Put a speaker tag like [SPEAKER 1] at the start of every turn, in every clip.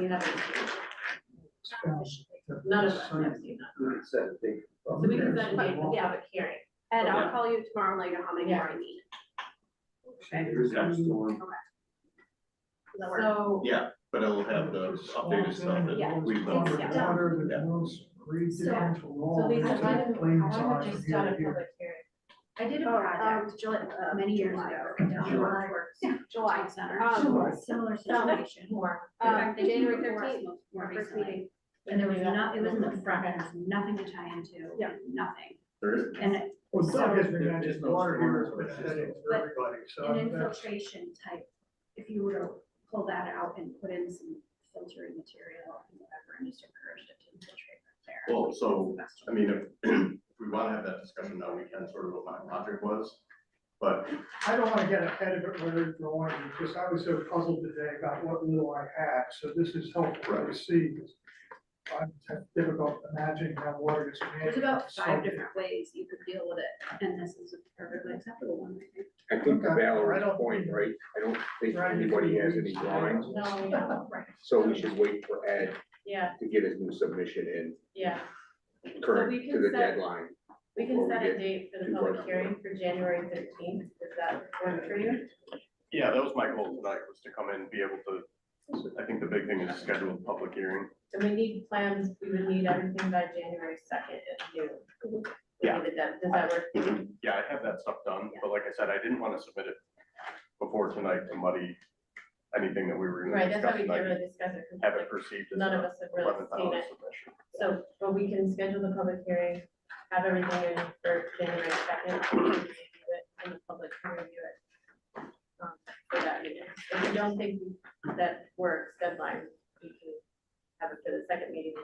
[SPEAKER 1] We haven't, none of us have seen that. So we can send Dave the
[SPEAKER 2] Yeah.
[SPEAKER 1] public hearing.
[SPEAKER 3] Ed, I'll call you tomorrow and let you know how many more I need. Does that work?
[SPEAKER 1] So,
[SPEAKER 4] Yeah, but it'll have the updated stuff that we've done.
[SPEAKER 3] Yeah.
[SPEAKER 2] Water,
[SPEAKER 4] Yeah.
[SPEAKER 2] the most
[SPEAKER 1] So-
[SPEAKER 2] residential
[SPEAKER 1] so
[SPEAKER 2] law.
[SPEAKER 1] Lisa,
[SPEAKER 2] that's
[SPEAKER 1] why didn't,
[SPEAKER 2] plain
[SPEAKER 1] why haven't
[SPEAKER 2] size
[SPEAKER 1] we just
[SPEAKER 2] here,
[SPEAKER 1] done a
[SPEAKER 2] here.
[SPEAKER 1] public hearing? I did a
[SPEAKER 3] Oh,
[SPEAKER 1] project
[SPEAKER 3] um, July, uh,
[SPEAKER 1] many years
[SPEAKER 3] July.
[SPEAKER 1] ago, down in
[SPEAKER 2] July.
[SPEAKER 1] Works.
[SPEAKER 3] July.
[SPEAKER 1] Center.
[SPEAKER 3] Um,
[SPEAKER 2] Sure.
[SPEAKER 5] Similar
[SPEAKER 3] situation.
[SPEAKER 5] situation.
[SPEAKER 1] More.
[SPEAKER 3] Um,
[SPEAKER 5] they came
[SPEAKER 3] January
[SPEAKER 5] before us
[SPEAKER 3] thirteenth,
[SPEAKER 5] most- more
[SPEAKER 3] our first
[SPEAKER 5] recently.
[SPEAKER 3] meeting.
[SPEAKER 5] And there was not, it was in the front,
[SPEAKER 1] end.
[SPEAKER 5] there was nothing to tie into.
[SPEAKER 3] Yeah.
[SPEAKER 5] Nothing.
[SPEAKER 4] There is,
[SPEAKER 5] And, it-
[SPEAKER 2] Well, it's not
[SPEAKER 5] So-
[SPEAKER 2] just
[SPEAKER 4] There is
[SPEAKER 2] residential
[SPEAKER 4] no
[SPEAKER 2] water here,
[SPEAKER 4] stormwater
[SPEAKER 2] it's aesthetic for
[SPEAKER 5] But-
[SPEAKER 2] everybody, so.
[SPEAKER 5] an
[SPEAKER 2] that's-
[SPEAKER 5] infiltration type, if you were to pull that out and put in some filtering material and whatever, and just encourage it to infiltrate right there.
[SPEAKER 4] well, so,
[SPEAKER 5] That's
[SPEAKER 4] I
[SPEAKER 5] the best.
[SPEAKER 4] mean, if, if we wanna have that discussion now, we can sort of what my logic was. But
[SPEAKER 2] I don't wanna get ahead of it where it's going, because I was so puzzled today about what little I had, so this is helpful to
[SPEAKER 4] Right.
[SPEAKER 2] see. 'cause I'm it's difficult imagining how water is managed.
[SPEAKER 5] There's about five
[SPEAKER 2] So-
[SPEAKER 5] different ways you could deal with it, and this is a perfectly acceptable one, I think.
[SPEAKER 6] I think to
[SPEAKER 2] Okay. I
[SPEAKER 6] Valerie's
[SPEAKER 2] don't-
[SPEAKER 6] point, right, I don't think
[SPEAKER 2] Right.
[SPEAKER 6] anybody has any drawings,
[SPEAKER 1] No, we don't.
[SPEAKER 6] so we should wait for Ed
[SPEAKER 1] yeah,
[SPEAKER 6] to get his new submission
[SPEAKER 1] yeah.
[SPEAKER 6] in
[SPEAKER 1] we
[SPEAKER 6] current
[SPEAKER 1] can
[SPEAKER 6] to the
[SPEAKER 1] set-
[SPEAKER 6] deadline.
[SPEAKER 1] We can
[SPEAKER 6] before we
[SPEAKER 1] set a
[SPEAKER 6] get
[SPEAKER 1] date for the
[SPEAKER 6] too far
[SPEAKER 1] public
[SPEAKER 6] down the
[SPEAKER 1] hearing for January thirteenth, is that work for you?
[SPEAKER 4] yeah, that was my goal tonight, was to come in and be able to, I think the big thing is to schedule a public hearing.
[SPEAKER 1] And we need plans, we would need everything by January second if you.
[SPEAKER 4] Yeah.
[SPEAKER 1] Does that- does that work?
[SPEAKER 4] Yeah, I have that stuff done, but like I said, I didn't wanna submit it before tonight to muddy anything that we were gonna
[SPEAKER 1] Right, that's why
[SPEAKER 4] discuss
[SPEAKER 1] we can't
[SPEAKER 4] tonight.
[SPEAKER 1] really discuss it. 'cause
[SPEAKER 4] Have it
[SPEAKER 1] like,
[SPEAKER 4] perceived as
[SPEAKER 1] None of
[SPEAKER 4] an
[SPEAKER 1] us have really
[SPEAKER 4] eleventh
[SPEAKER 1] seen
[SPEAKER 4] hour
[SPEAKER 1] it,
[SPEAKER 4] submission.
[SPEAKER 1] so, but we can schedule the public hearing, have everything in for January second. And the public can review it. um, For that meeting, if you don't think that works deadline, we can have it for the second meeting.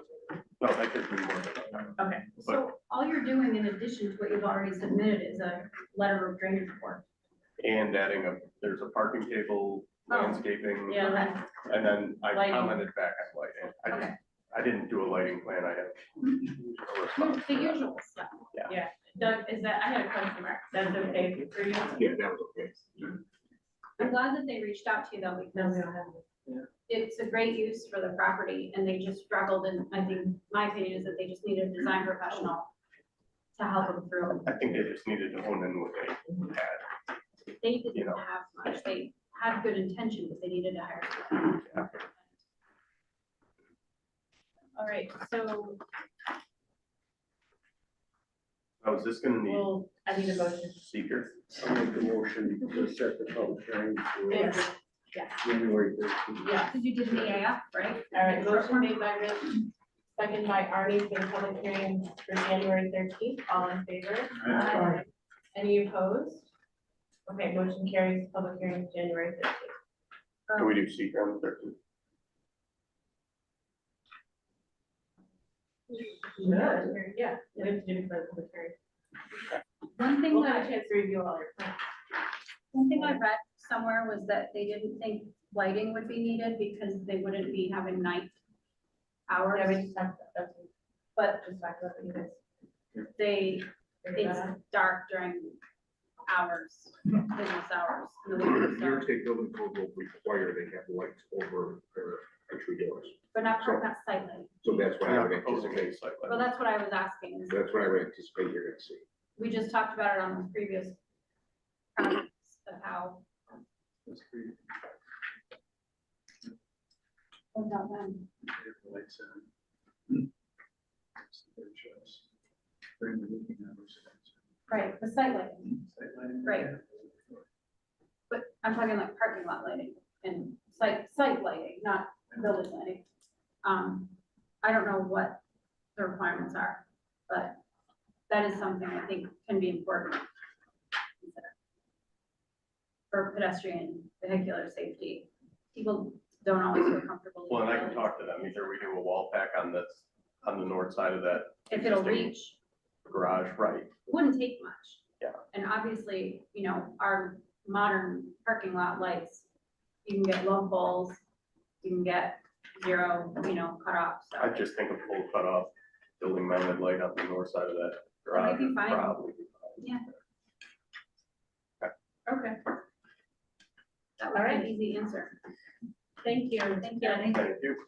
[SPEAKER 4] No, that gives me more than enough.
[SPEAKER 1] Okay.
[SPEAKER 4] But,
[SPEAKER 5] So all you're doing in addition to what you've already submitted is a letter of drainage report.
[SPEAKER 4] and adding a, there's a parking table,
[SPEAKER 5] Oh.
[SPEAKER 4] landscaping.
[SPEAKER 1] Yeah,
[SPEAKER 5] Okay.
[SPEAKER 4] And then I
[SPEAKER 1] Lighting.
[SPEAKER 4] commented back on lighting. I just, I didn't do a lighting plan, I have. a response
[SPEAKER 5] The
[SPEAKER 4] for that.
[SPEAKER 5] usual stuff.
[SPEAKER 1] Doug, is that, I had a question mark, that's okay for you?
[SPEAKER 6] Yeah, that was okay.
[SPEAKER 5] I'm glad that they reached out to you though,
[SPEAKER 1] No, we
[SPEAKER 5] because
[SPEAKER 1] don't have.
[SPEAKER 5] it's a great use for the property and they just struggled and I think my opinion is that they just need a design professional to help them through.
[SPEAKER 4] I think they just needed to hone in what they had.
[SPEAKER 5] They
[SPEAKER 4] You
[SPEAKER 5] didn't
[SPEAKER 4] know.
[SPEAKER 5] have much. They had good intention, but they needed to hire. someone.
[SPEAKER 1] All right, so
[SPEAKER 4] I was just gonna need
[SPEAKER 1] we'll, I need a motion.
[SPEAKER 4] speaker.
[SPEAKER 7] I'll make the motion to set the public hearing for
[SPEAKER 1] Yes,
[SPEAKER 7] January thirteenth.
[SPEAKER 1] yeah,
[SPEAKER 5] Because you did an EAF, right?
[SPEAKER 1] all right, motion made by Rich, second by Arnie for the public hearing for January thirteenth, all in favor?
[SPEAKER 5] uh,
[SPEAKER 2] Aye.
[SPEAKER 1] Any opposed? Okay, motion carries, public hearing is January thirteenth.
[SPEAKER 4] Can we do speaker on the thirteenth?
[SPEAKER 1] Yeah. Yeah, we have to do it for the public hearing.
[SPEAKER 5] One thing
[SPEAKER 1] We'll
[SPEAKER 5] that.
[SPEAKER 1] have a chance to review all your plans.
[SPEAKER 5] One thing I read somewhere was that they didn't think lighting would be needed because they wouldn't be having night
[SPEAKER 1] Yeah, we
[SPEAKER 5] hours.
[SPEAKER 1] just talked about that,
[SPEAKER 5] But
[SPEAKER 1] just talked about what you guys.
[SPEAKER 5] they,
[SPEAKER 1] figured
[SPEAKER 5] it's
[SPEAKER 1] out.
[SPEAKER 5] dark during hours, business hours. in the winter,
[SPEAKER 6] New York
[SPEAKER 5] so-
[SPEAKER 6] State building code will require they have lights over their entry doors,
[SPEAKER 5] But not, for- not site lighting.
[SPEAKER 6] so that's
[SPEAKER 4] We're
[SPEAKER 6] what I
[SPEAKER 4] not
[SPEAKER 6] would
[SPEAKER 4] proposing
[SPEAKER 6] anticipate,
[SPEAKER 4] any site
[SPEAKER 5] Well,
[SPEAKER 4] plan.
[SPEAKER 5] that's what I was asking. is-
[SPEAKER 6] that's what I would anticipate you're gonna see.
[SPEAKER 5] We just talked about it on the previous projects of how. um, About them. Right, the site lighting. Right. But I'm talking like parking lot lighting and site, site lighting, not building lighting. Um, I don't know what the requirements are, but that is something I think can be important. to consider For pedestrian vehicular safety, people don't always feel comfortable.
[SPEAKER 4] Well, and I can talk to them, either we do a wall pack on this, on the north side of that
[SPEAKER 5] If it'll
[SPEAKER 4] existing-
[SPEAKER 5] reach.
[SPEAKER 4] garage, right?
[SPEAKER 5] wouldn't take much.
[SPEAKER 4] Yeah.
[SPEAKER 5] And obviously, you know, our modern parking lot lights, you can get low poles, you can get zero, you know, cut off, so.
[SPEAKER 4] I just think a full cutoff building mounted light on the north side of that garage
[SPEAKER 5] That might be
[SPEAKER 4] would
[SPEAKER 5] fine.
[SPEAKER 4] probably be fine.
[SPEAKER 5] Yeah,
[SPEAKER 1] Okay,
[SPEAKER 5] that would be
[SPEAKER 1] Alright.
[SPEAKER 5] an easy answer.
[SPEAKER 1] thank you.
[SPEAKER 5] Thank you.
[SPEAKER 4] Thank you.